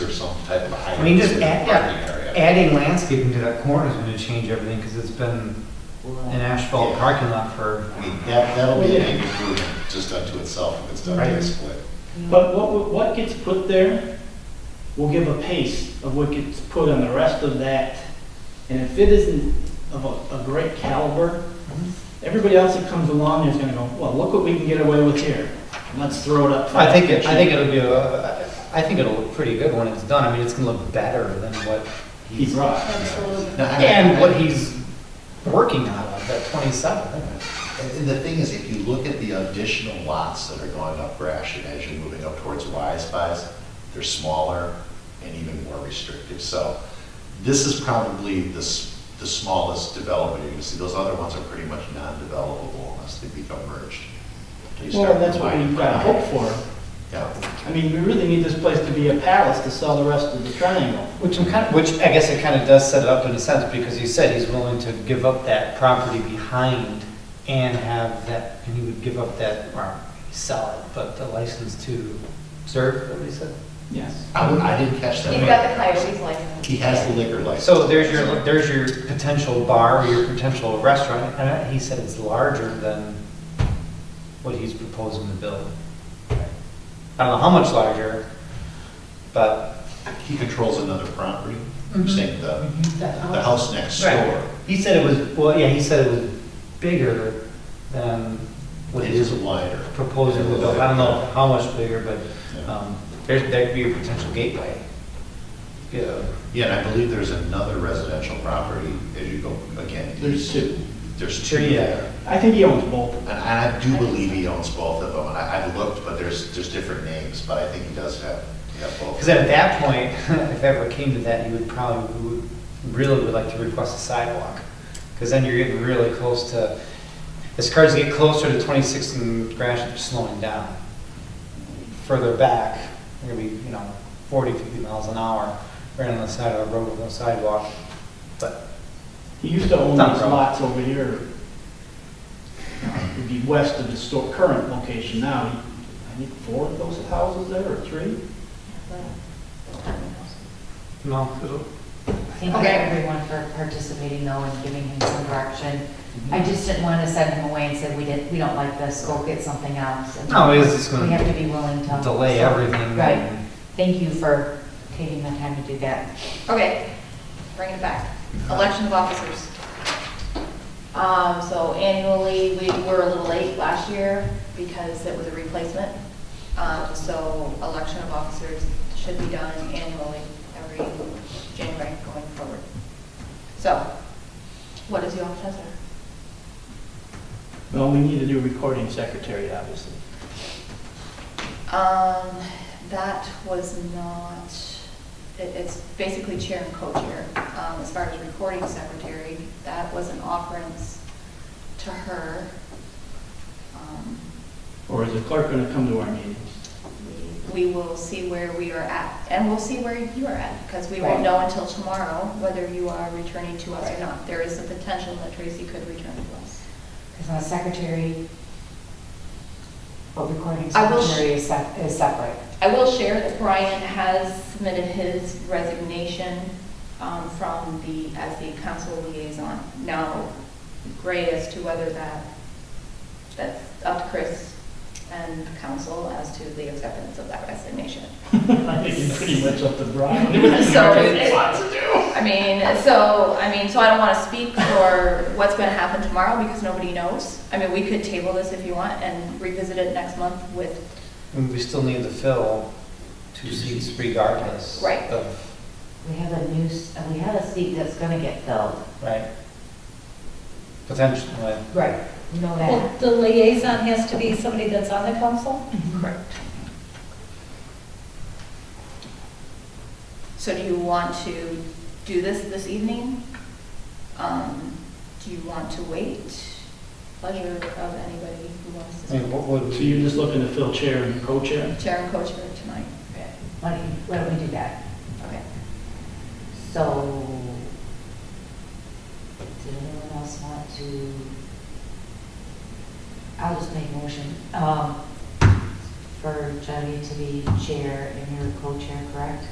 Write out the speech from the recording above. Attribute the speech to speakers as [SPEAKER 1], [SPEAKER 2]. [SPEAKER 1] or some type of high.
[SPEAKER 2] I mean, just add,
[SPEAKER 1] parking
[SPEAKER 2] yeah,
[SPEAKER 1] area.
[SPEAKER 2] adding landscaping to that corner is gonna change everything, because it's been an asphalt
[SPEAKER 1] Yeah.
[SPEAKER 2] parking lot for,
[SPEAKER 1] I mean, that, that'll be an improvement just unto itself if it's done by a split.
[SPEAKER 3] But what, what gets put there will give a pace of what gets put on the rest of that. And if it isn't of a, a great caliber, everybody else that comes along is gonna go, well, look what we can get away with here. Let's throw it up. for
[SPEAKER 2] I think it, I think
[SPEAKER 3] cheap."
[SPEAKER 2] it'll be, a- I think it'll look pretty good when it's done, I mean, it's gonna look better than what
[SPEAKER 3] He's
[SPEAKER 2] he's,
[SPEAKER 3] right.
[SPEAKER 4] Absolutely.
[SPEAKER 5] No, I-
[SPEAKER 2] and
[SPEAKER 5] I-
[SPEAKER 2] what he's working out of at twenty-seven.
[SPEAKER 5] And and the thing is, if you look at the additional lots that are going up Gratiot as you're moving up towards Y Spies, they're smaller and even more restrictive. So this is probably the, s- the smallest development you're gonna see. Those other ones are pretty much non-developable unless they become merged. You
[SPEAKER 3] Well,
[SPEAKER 5] start
[SPEAKER 3] and that's what
[SPEAKER 5] combining
[SPEAKER 3] we've got
[SPEAKER 5] them.
[SPEAKER 3] hope for.
[SPEAKER 5] Yeah.
[SPEAKER 3] I mean, we really need this place to be a palace to sell the rest of the triangle.
[SPEAKER 2] Which I'm kind of, which I guess it kind of does set it up in a sense, because he said he's willing to give up that property behind and have that, and he would give up that, or sell it, but the license to serve, is that what he said?
[SPEAKER 3] Yes.
[SPEAKER 5] I would- I didn't catch that.
[SPEAKER 4] He's got the coyotes license.
[SPEAKER 5] He has the liquor license.
[SPEAKER 2] So there's your, there's your potential bar, or your potential restaurant, and I- he said it's larger than what he's proposing to build. I don't know how much larger, but.
[SPEAKER 5] He controls another property,
[SPEAKER 2] Mhm.
[SPEAKER 5] saying the, the house next door.
[SPEAKER 2] Right. He said it was, well, yeah, he said it was bigger than what
[SPEAKER 5] It
[SPEAKER 2] he's
[SPEAKER 5] is wider.
[SPEAKER 2] proposing to build. I don't know how much bigger, but
[SPEAKER 5] Yeah.
[SPEAKER 2] um, there, there could be a potential gateway. Yeah.
[SPEAKER 5] Yeah, and I believe there's another residential property as you go, again.
[SPEAKER 3] There's two.
[SPEAKER 5] There's two
[SPEAKER 2] Yeah.
[SPEAKER 5] there.
[SPEAKER 3] I think he owns both.
[SPEAKER 5] And I do believe he owns both of them, and I, I've looked, but there's, there's different names, but I think he does have, have both.
[SPEAKER 2] Because at that point, if ever came to that, you would probably, you would- really would like to request a sidewalk. Because then you're getting really close to, as cars get closer to 26th and Gratiot, they're slowing down. Further back, you're gonna be, you know, 40, 50 miles an hour, right on the side of a road with no sidewalk. But
[SPEAKER 3] He used to own
[SPEAKER 2] Not
[SPEAKER 3] these
[SPEAKER 2] wrong.
[SPEAKER 3] lots over here. It would be west of the store, current location now. I think four of those houses there, or three?
[SPEAKER 2] No.
[SPEAKER 6] Thank you everyone for participating though and giving him some direction. I just didn't want to send him away and say, we didn't, we don't like this, go get something else. And
[SPEAKER 2] No, it's just gonna
[SPEAKER 6] We have to be willing to.
[SPEAKER 2] delay everything.
[SPEAKER 6] Right. Thank you for taking the time to do that.
[SPEAKER 4] Okay, bring it back. Election of officers. Um, so annually, we were a little late last year because it was a replacement. Um, so election of officers should be done annually, every January going forward. So, what is your pleasure?
[SPEAKER 3] Well, we need a new recording secretary, obviously.
[SPEAKER 4] Um, that was not, it, it's basically chair and co-chair. Um, as far as recording secretary, that was an offerance to her. Um,
[SPEAKER 3] Or is the clerk going to come to our meetings?
[SPEAKER 4] We will see where we are at, and we'll see where you are at, because we won't
[SPEAKER 6] Right.
[SPEAKER 4] know until tomorrow whether you are returning to us or
[SPEAKER 6] Right.
[SPEAKER 4] not. There is a potential that Tracy could return to us.
[SPEAKER 6] Because my secretary, what recording
[SPEAKER 4] I will-
[SPEAKER 6] secretary is sep- is separate.
[SPEAKER 4] I will share that Brian has submitted his resignation um, from the, as the council liaison. Now, gray as to whether that, that's up to Chris and council as to the acceptance of that resignation.
[SPEAKER 3] I think it's pretty much up to Brian.
[SPEAKER 4] So, it- I mean, so, I mean, so I don't want to speak for what's going to happen tomorrow because nobody knows. I mean, we could table this if you want and revisit it next month with
[SPEAKER 2] And we still need to fill two seats regardless.
[SPEAKER 4] Right.
[SPEAKER 2] of-
[SPEAKER 6] We have a new, s- uh, we have a seat that's going to get filled.
[SPEAKER 2] Right. Potentially.
[SPEAKER 6] Right. You know
[SPEAKER 7] Well,
[SPEAKER 6] that.
[SPEAKER 7] the liaison has to be somebody that's on the council?
[SPEAKER 4] Correct. So do you want to do this this evening? Um, Do you want to wait? Pleasure of anybody who wants
[SPEAKER 2] I mean,
[SPEAKER 4] to
[SPEAKER 2] what would
[SPEAKER 3] So
[SPEAKER 2] we-
[SPEAKER 3] you're just looking to fill chair and co-chair?
[SPEAKER 4] chair and coach for tonight?
[SPEAKER 6] Why don't you- why don't we do that?
[SPEAKER 4] Okay.
[SPEAKER 6] So, did anyone else want to? I'll just make a motion, um, for Jenny to be chair and you're co-chair, correct?